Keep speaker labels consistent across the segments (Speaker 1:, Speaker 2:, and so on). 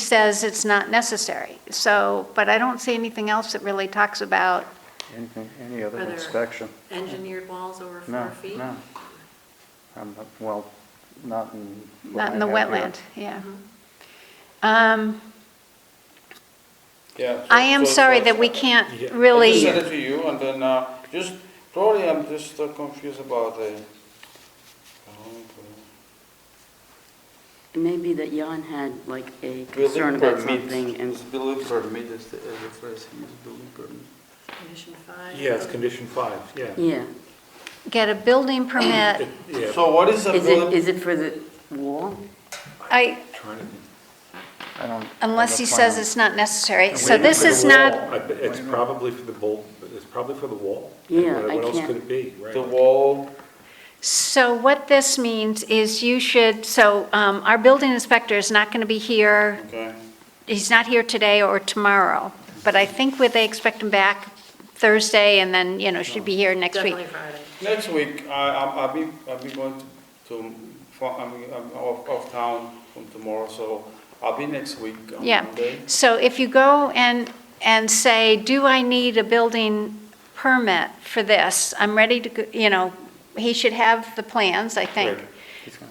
Speaker 1: says it's not necessary. So, but I don't see anything else that really talks about,
Speaker 2: Anything, any other
Speaker 3: Are there
Speaker 2: inspection?
Speaker 3: Engineered walls over
Speaker 2: No,
Speaker 3: four feet?
Speaker 2: no. Um, Well, not in. what
Speaker 1: not in
Speaker 2: I
Speaker 1: the
Speaker 2: have here.
Speaker 1: wetland, yeah. Um,
Speaker 4: Yeah. so-
Speaker 1: I am
Speaker 4: so-
Speaker 1: sorry
Speaker 4: so-
Speaker 1: that we can't
Speaker 4: I just
Speaker 1: really,
Speaker 4: sent it to you, and then, uh, just, probably I'm just uh, confused about the. uh,
Speaker 5: Maybe that Jan had like a concern
Speaker 4: Building
Speaker 5: about
Speaker 4: permit.
Speaker 5: something and
Speaker 4: It's building permit, is the, is the phrase, he used, building permit.
Speaker 3: Condition five?
Speaker 6: Yeah, it's condition five, yeah.
Speaker 5: Yeah.
Speaker 1: get a building permit.
Speaker 6: It- Yeah,
Speaker 4: So what is a
Speaker 5: Is it,
Speaker 4: building?
Speaker 5: is it for the wall?
Speaker 1: I,
Speaker 6: trying to think.
Speaker 2: I don't. I
Speaker 1: unless he
Speaker 2: don't find
Speaker 1: says
Speaker 2: them.
Speaker 1: it's not necessary.
Speaker 6: And
Speaker 1: So
Speaker 6: wait,
Speaker 1: this
Speaker 6: for the
Speaker 1: is not,
Speaker 6: wall. I bet It's probably for the bolt, it's probably for the wall.
Speaker 5: Yeah,
Speaker 6: What-
Speaker 5: I
Speaker 6: What else
Speaker 5: can't-
Speaker 6: could it be, right?
Speaker 4: The wall,
Speaker 1: so what this means is you should, so um, our building inspector is not going to be here
Speaker 4: okay,
Speaker 1: he's not here today or tomorrow, but I think where they expect him back Thursday, and then, you know, should be here next week.
Speaker 3: Definitely Friday.
Speaker 4: next week, I, I'm, I'll be, I'll be going to, for- I'm, I'm off, off town from tomorrow, so I'll be next week on
Speaker 1: Yeah.
Speaker 4: Monday.
Speaker 1: So if you go and, and say, do I need a building permit for this? I'm ready to, go you know, he should have the plans, I think.
Speaker 4: Right.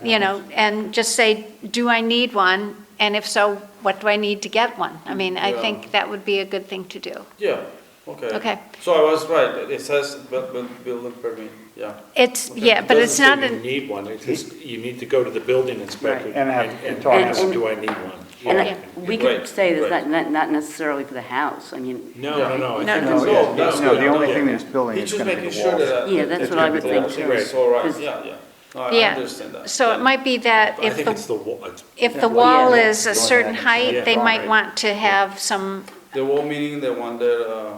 Speaker 1: You know, and just say, do I need one? And if so, what do I need to get one? I mean, I
Speaker 4: Yeah.
Speaker 1: think that would be a good thing to do.
Speaker 4: Yeah, okay.
Speaker 1: Okay.
Speaker 4: So I was right, it says bu- bu- building permit, yeah.
Speaker 1: It's, yeah,
Speaker 6: It
Speaker 1: but it's
Speaker 6: doesn't
Speaker 1: not,
Speaker 6: say
Speaker 1: an.
Speaker 6: You need one, it's just, you need to go to the building inspector.
Speaker 2: Right, and have-
Speaker 6: And
Speaker 2: talk
Speaker 6: ask,
Speaker 5: to him.
Speaker 6: do I need one?
Speaker 5: And
Speaker 6: Yeah.
Speaker 5: I- we
Speaker 4: Right,
Speaker 5: could say that's
Speaker 4: right.
Speaker 5: not- not, not necessarily for the house, I mean,
Speaker 6: No, no, no, I
Speaker 1: No,
Speaker 6: think
Speaker 2: No,
Speaker 6: it's
Speaker 4: no,
Speaker 6: all-
Speaker 2: yeah,
Speaker 4: no,
Speaker 2: no, the
Speaker 4: no,
Speaker 2: only
Speaker 4: yeah.
Speaker 2: thing that's building
Speaker 4: He's
Speaker 2: is
Speaker 4: just
Speaker 2: gonna be
Speaker 4: making
Speaker 2: the
Speaker 4: sure
Speaker 2: walls.
Speaker 4: that.
Speaker 5: Yeah, that's
Speaker 2: what I would think
Speaker 5: too.
Speaker 4: It's all right,
Speaker 5: Because-
Speaker 4: yeah, yeah. No, I
Speaker 1: Yeah.
Speaker 4: understand that.
Speaker 1: So it might be that
Speaker 6: I
Speaker 1: if
Speaker 6: think it's
Speaker 1: the,
Speaker 6: the wall, it's
Speaker 1: if the wall
Speaker 5: Yeah.
Speaker 1: is a certain height, they might want to have some,
Speaker 4: The wall meaning the one that, uh,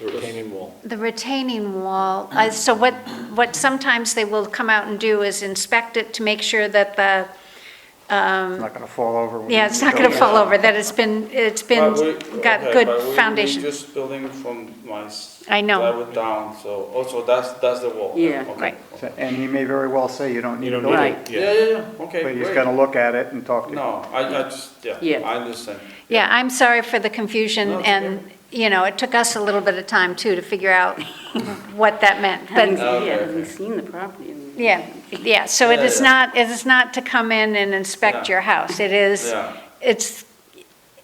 Speaker 6: the retaining wall.
Speaker 1: the retaining wall. Uh, So what, what sometimes they will come out and do is inspect it to make sure that the,
Speaker 2: It's
Speaker 1: um,
Speaker 2: not gonna fall over. when
Speaker 1: yeah,
Speaker 2: you
Speaker 1: it's not
Speaker 2: go
Speaker 1: going to
Speaker 2: in.
Speaker 1: fall over, that it's been, it's been,
Speaker 4: but we-
Speaker 1: got
Speaker 4: okay, but we-
Speaker 1: good
Speaker 4: we
Speaker 1: foundation.
Speaker 4: just building from my. s-
Speaker 1: I know.
Speaker 4: Plywood down, so also that's, that's the wall.
Speaker 5: Yeah.
Speaker 4: Okay.
Speaker 1: Right.
Speaker 2: So- And he may very well say you don't
Speaker 6: You
Speaker 2: need a
Speaker 6: don't need
Speaker 2: building,
Speaker 5: Right.
Speaker 6: it,
Speaker 4: Yeah,
Speaker 6: yeah.
Speaker 4: yeah, yeah, okay,
Speaker 2: but he's
Speaker 4: great.
Speaker 2: gonna look at it and talk to you.
Speaker 4: No, I, I just, yeah,
Speaker 5: Yeah.
Speaker 4: I understand.
Speaker 1: Yeah, I'm sorry for the confusion,
Speaker 4: No, it's
Speaker 1: and, you know, it took us a little bit of time, too, to figure out what that meant. But
Speaker 5: having, yeah,
Speaker 4: Oh, Okay.
Speaker 5: having seen the property. I mean-
Speaker 1: Yeah, yeah, so it
Speaker 4: Yeah,
Speaker 1: is
Speaker 4: yeah.
Speaker 1: not, it is not to come in and inspect
Speaker 4: Yeah.
Speaker 1: your house. It is,
Speaker 4: Yeah.
Speaker 1: it's,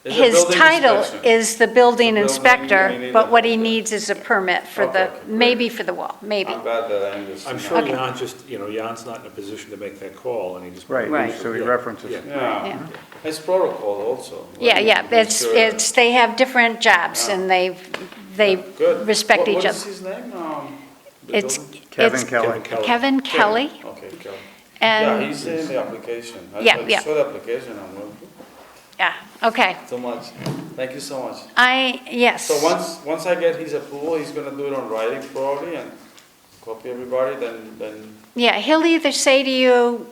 Speaker 4: It's a
Speaker 1: his
Speaker 4: building
Speaker 1: title
Speaker 4: inspection.
Speaker 1: is the building
Speaker 4: The building
Speaker 1: inspector,
Speaker 4: meaning
Speaker 1: but
Speaker 4: the-
Speaker 1: what he needs is a permit for
Speaker 4: Okay,
Speaker 1: the,
Speaker 4: great.
Speaker 1: maybe for the wall, maybe.
Speaker 4: I'm glad that I understand.
Speaker 6: I'm sure Jan just, you know, Jan's not in a position to make that call, and he just.
Speaker 2: Right,
Speaker 5: Right.
Speaker 2: so he
Speaker 6: Yeah,
Speaker 2: references
Speaker 6: yeah.
Speaker 2: it.
Speaker 1: Yeah.
Speaker 4: Yeah, it's protocol also.
Speaker 1: Yeah,
Speaker 4: right?
Speaker 1: yeah,
Speaker 4: Make
Speaker 1: it's,
Speaker 4: sure that-
Speaker 1: it's, they have different jobs, and they, they
Speaker 4: Good.
Speaker 1: respect
Speaker 4: What-
Speaker 1: each
Speaker 4: What is
Speaker 1: other.
Speaker 4: his name? Um, the
Speaker 1: It's,
Speaker 4: building-
Speaker 2: Kevin
Speaker 1: it's
Speaker 2: Kelly.
Speaker 1: Kevin Kelly,
Speaker 4: Okay, Kelly. Yeah,
Speaker 1: and,
Speaker 4: he's in the application. I-
Speaker 1: Yeah, yeah.
Speaker 4: I saw the application, I'm like,
Speaker 1: yeah, okay.
Speaker 4: so much, thank you so much.
Speaker 1: I, yes.
Speaker 4: So once, once I get his approval, he's gonna do it on writing probably and copy everybody, then, then,
Speaker 1: Yeah, he'll either say to you,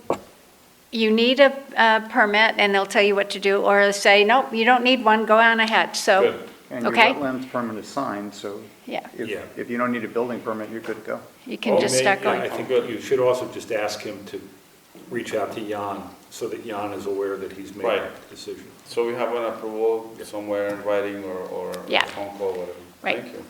Speaker 1: you need a, a permit, and they'll tell you what to do, or he'll say, nope, you don't need one, go on ahead, so,
Speaker 6: Good.
Speaker 2: And your
Speaker 1: Okay.
Speaker 2: wetlands permit is signed, so
Speaker 1: yeah,
Speaker 2: if,
Speaker 6: Yeah.
Speaker 2: if you don't need a building permit, you're good to go.
Speaker 1: you can just
Speaker 6: Well, Oh, may-
Speaker 1: start going.
Speaker 6: I think uh, you should also just ask him to reach out to Jan, so that Jan is aware that he's made
Speaker 4: Right.
Speaker 6: that decision.
Speaker 4: so we have an approval somewhere in writing or, or
Speaker 1: Yeah.
Speaker 4: phone call, whatever.
Speaker 1: Right.
Speaker 4: Thank you.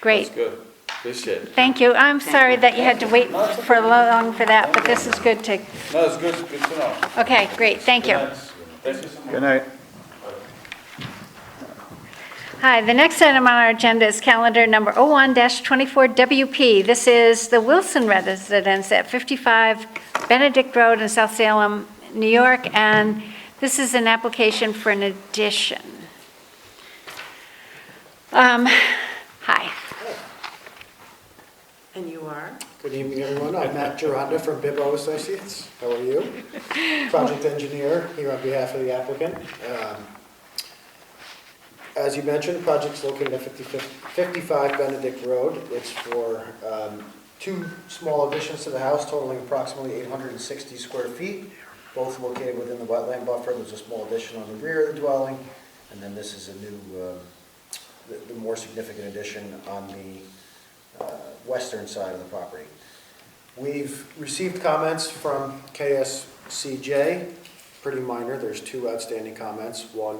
Speaker 1: Great,
Speaker 4: That's good, appreciate it.
Speaker 1: thank you. I'm sorry that you had to wait for long for that, but this is good to,
Speaker 4: No, it's good, good to know.
Speaker 1: okay, great, thank you.
Speaker 4: Thanks. Thank you so much.
Speaker 2: Good night.
Speaker 1: Hi, the next item on our agenda is calendar number 01-24WP. This is the Wilson Residence at 55 Benedict Road in South Salem, New York, and this is an application for an addition. Um, Hi.
Speaker 3: And you are?
Speaker 7: Good evening, everyone. I'm Matt Gironda from Bibbo Associates. How are you? Project engineer here on behalf of the applicant. Um, As you mentioned, the project's located at 55 55 Benedict Road. It's for um, two small additions to the house totaling approximately 860 square feet, both located within the wetland buffer. There's a small addition on the rear of the dwelling, and then this is a new, um, the the more significant addition on the uh, western side of the property. We've received comments from KSCJ, pretty minor, there's two outstanding comments. One